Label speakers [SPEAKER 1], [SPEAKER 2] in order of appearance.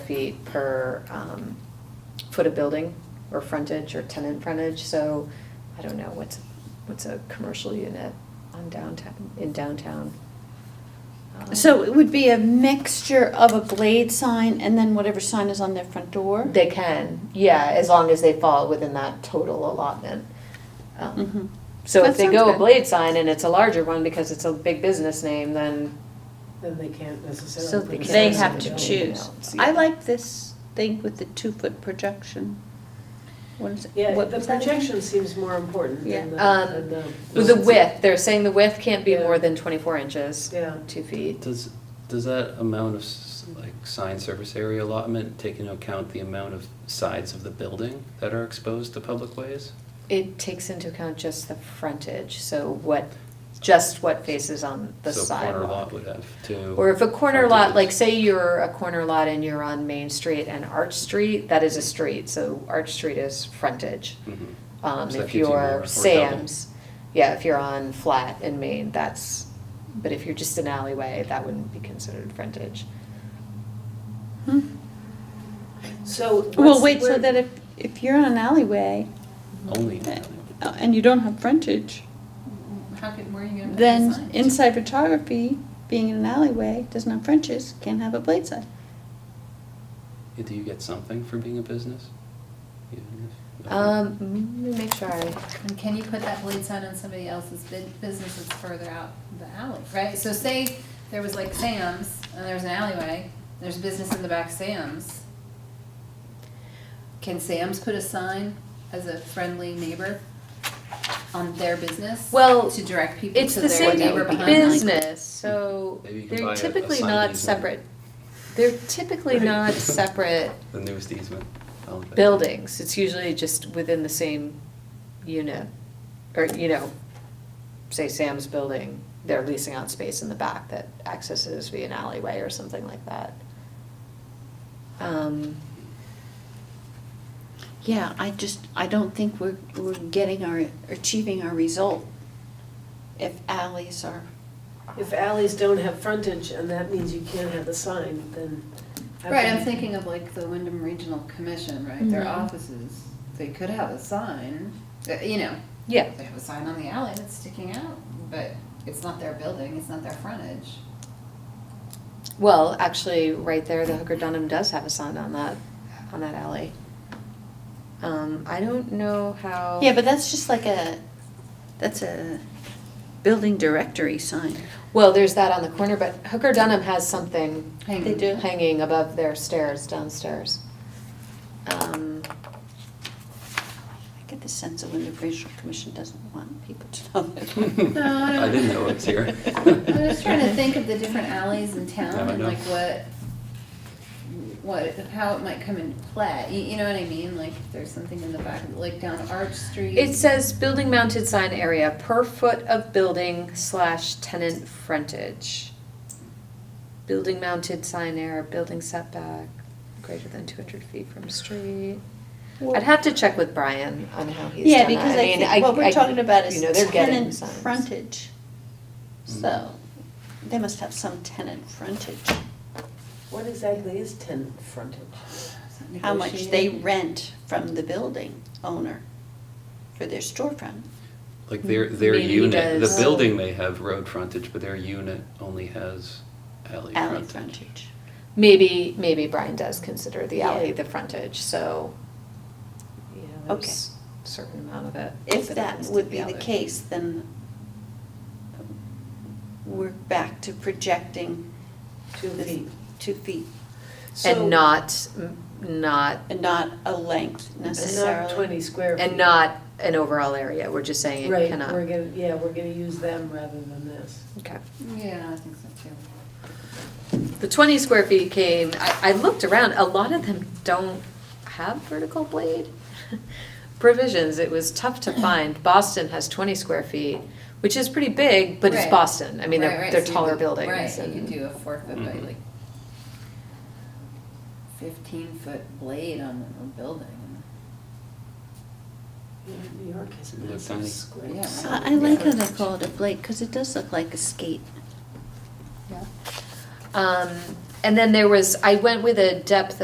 [SPEAKER 1] feet per um, foot of building or frontage or tenant frontage, so I don't know, what's, what's a commercial unit on downtown, in downtown? Um,
[SPEAKER 2] So it would be a mixture of a blade sign and then whatever sign is on their front door?
[SPEAKER 1] They can, yeah, as long as they fall within that total allotment. Um,
[SPEAKER 2] Mhm.
[SPEAKER 1] So if
[SPEAKER 2] That
[SPEAKER 1] they
[SPEAKER 2] sounds
[SPEAKER 1] go a
[SPEAKER 2] good.
[SPEAKER 1] blade sign and it's a larger one because it's a big business name, then
[SPEAKER 3] Then they can't necessarily.
[SPEAKER 4] So
[SPEAKER 3] put
[SPEAKER 4] they
[SPEAKER 3] it
[SPEAKER 4] They
[SPEAKER 3] in
[SPEAKER 4] have
[SPEAKER 3] the
[SPEAKER 4] to
[SPEAKER 3] building.
[SPEAKER 4] choose.
[SPEAKER 2] I like this thing with the two-foot projection. What is it?
[SPEAKER 3] Yeah,
[SPEAKER 2] What
[SPEAKER 3] the
[SPEAKER 2] was that again?
[SPEAKER 3] projection seems more important
[SPEAKER 2] Yeah.
[SPEAKER 3] than the,
[SPEAKER 1] Um,
[SPEAKER 3] than the.
[SPEAKER 1] with the width, they're saying the width can't be
[SPEAKER 3] Yeah.
[SPEAKER 1] more than twenty-four inches,
[SPEAKER 3] Yeah,
[SPEAKER 1] two feet.
[SPEAKER 5] Does, does that amount of, s- like, sign surface area allotment take into account the amount of sides of the building that are exposed to public ways?
[SPEAKER 1] It takes into account just the frontage, so what, just what faces on the
[SPEAKER 5] So a corner lot
[SPEAKER 1] sidewalk.
[SPEAKER 5] would have two.
[SPEAKER 1] Or if a corner lot,
[SPEAKER 5] frontages.
[SPEAKER 1] like say you're a corner lot and you're on Main Street and Arch Street, that is a street, so Arch Street is frontage.
[SPEAKER 5] Mhm.
[SPEAKER 1] Um,
[SPEAKER 5] So that
[SPEAKER 1] if
[SPEAKER 5] gives you more
[SPEAKER 1] you're
[SPEAKER 5] or
[SPEAKER 1] Sam's, yeah, if you're on flat in Maine, that's, but if you're just an alleyway, that wouldn't be considered frontage.
[SPEAKER 3] so.
[SPEAKER 2] Well,
[SPEAKER 3] what's-
[SPEAKER 2] wait, so
[SPEAKER 3] where-
[SPEAKER 2] that if, if you're on an alleyway
[SPEAKER 5] Only.
[SPEAKER 2] uh, and you don't have frontage,
[SPEAKER 6] How can, where are you gonna put the
[SPEAKER 2] then
[SPEAKER 6] sign?
[SPEAKER 2] inside photography, being in an alleyway, doesn't have frontage, can't have a blade sign.
[SPEAKER 5] Do you get something for being a business? Even if-
[SPEAKER 1] Um, mm, let me make sure I,
[SPEAKER 6] And can you put that blade sign on somebody else's bu- business that's further out the alley, right? So say there was like Sam's, and there's an alleyway, and there's business in the back of Sam's. Can Sam's put a sign as a friendly neighbor on their business?
[SPEAKER 1] Well,
[SPEAKER 6] To direct people
[SPEAKER 1] it's
[SPEAKER 6] to
[SPEAKER 1] the
[SPEAKER 6] their
[SPEAKER 1] same
[SPEAKER 6] neighbor behind them?
[SPEAKER 1] business, so
[SPEAKER 5] Maybe you can buy
[SPEAKER 1] they're
[SPEAKER 5] a- a
[SPEAKER 1] typically
[SPEAKER 5] sign
[SPEAKER 1] not
[SPEAKER 5] easement.
[SPEAKER 1] separate. They're typically
[SPEAKER 5] Right.
[SPEAKER 1] not separate
[SPEAKER 5] The newest easement. I'll bet.
[SPEAKER 1] buildings, it's usually just within the same unit. Or, you know, say Sam's building, they're leasing out space in the back that accesses via an alleyway or something like that. Um,
[SPEAKER 2] Yeah, I just, I don't think we're, we're getting our, achieving our result if alleys are.
[SPEAKER 3] If alleys don't have frontage and that means you can't have the sign, then. I
[SPEAKER 6] Right, I'm
[SPEAKER 3] wouldn't-
[SPEAKER 6] thinking of like the Wyndham Regional Commission, right, their
[SPEAKER 1] Mhm.
[SPEAKER 6] offices, they could have a sign, uh, you know,
[SPEAKER 1] yeah,
[SPEAKER 6] they have a sign on the alley that's sticking out, but it's not their building, it's not their frontage.
[SPEAKER 1] well, actually, right there, the Hooker Dunham does have a sign on that, on that alley. Um, I don't know how.
[SPEAKER 2] Yeah, but that's just like a, that's a building directory sign.
[SPEAKER 1] Well, there's that on the corner, but Hooker Dunham has something
[SPEAKER 2] They do.
[SPEAKER 1] hanging above their stairs downstairs. Um,
[SPEAKER 2] I get the sense that when the Regional Commission doesn't want people to know that.
[SPEAKER 6] No, I don't.
[SPEAKER 5] I didn't know it was here.
[SPEAKER 6] I was trying to think of the different alleys in
[SPEAKER 5] Yeah,
[SPEAKER 6] town
[SPEAKER 5] I
[SPEAKER 6] and
[SPEAKER 5] know.
[SPEAKER 6] like what, what, how it might come into play, you, you know what I mean, like if there's something in the back, like down Arch Street.
[SPEAKER 1] It says building mounted sign area per foot of building slash tenant frontage. Building mounted sign area, building setback greater than two hundred feet from street. I'd have to check with Brian on how he's
[SPEAKER 2] Yeah,
[SPEAKER 1] done that.
[SPEAKER 2] because I
[SPEAKER 1] mean,
[SPEAKER 2] think what
[SPEAKER 1] I-
[SPEAKER 2] we're talking about
[SPEAKER 1] you
[SPEAKER 2] is
[SPEAKER 1] know, they're getting
[SPEAKER 2] tenant
[SPEAKER 1] signs.
[SPEAKER 2] frontage.
[SPEAKER 5] Mm.
[SPEAKER 2] So, they must have some tenant frontage,
[SPEAKER 3] What exactly is tenant frontage?
[SPEAKER 2] how much they
[SPEAKER 6] Negotiated.
[SPEAKER 2] rent from the building owner for their storefront.
[SPEAKER 5] Like their, their
[SPEAKER 1] Maybe he
[SPEAKER 5] unit, the
[SPEAKER 1] does.
[SPEAKER 5] building may have road frontage, but their unit only has alley
[SPEAKER 2] alley
[SPEAKER 5] frontage.
[SPEAKER 2] frontage.
[SPEAKER 1] Maybe, maybe Brian does consider the alley
[SPEAKER 2] Yeah.
[SPEAKER 1] the frontage, so, you know,
[SPEAKER 2] Okay.
[SPEAKER 1] there's a certain amount of it.
[SPEAKER 2] If that
[SPEAKER 1] happens to
[SPEAKER 2] would be the
[SPEAKER 1] alley.
[SPEAKER 2] case, then we're back to projecting
[SPEAKER 3] Two
[SPEAKER 2] the
[SPEAKER 3] feet.
[SPEAKER 2] two feet
[SPEAKER 3] So-
[SPEAKER 1] And not, not,
[SPEAKER 2] and not a length
[SPEAKER 3] And
[SPEAKER 2] necessarily.
[SPEAKER 3] not twenty square feet.
[SPEAKER 1] and not an overall area, we're just saying it
[SPEAKER 3] Right,
[SPEAKER 1] cannot.
[SPEAKER 3] we're gonna, yeah, we're gonna use them rather than this.
[SPEAKER 1] Okay.
[SPEAKER 6] Yeah, I think so too.
[SPEAKER 1] The twenty square feet came, I, I looked around, a lot of them don't have vertical blade provisions, it was tough to find. Boston has twenty square feet, which is pretty big, but it's
[SPEAKER 6] Right.
[SPEAKER 1] Boston, I mean,
[SPEAKER 6] Right,
[SPEAKER 1] they're,
[SPEAKER 6] right,
[SPEAKER 1] they're
[SPEAKER 6] so you
[SPEAKER 1] taller
[SPEAKER 6] could-
[SPEAKER 1] buildings
[SPEAKER 6] Right, you
[SPEAKER 1] and-
[SPEAKER 6] could do a four foot by
[SPEAKER 5] Mhm.
[SPEAKER 6] like fifteen foot blade on a building.
[SPEAKER 3] Yeah, New York has
[SPEAKER 5] Little
[SPEAKER 3] massive
[SPEAKER 5] tiny.
[SPEAKER 3] square.
[SPEAKER 6] Yeah.
[SPEAKER 2] I I like how they call it a blade, because it does look like a skate.
[SPEAKER 6] Yeah.
[SPEAKER 1] Um, and then there was, I went with a depth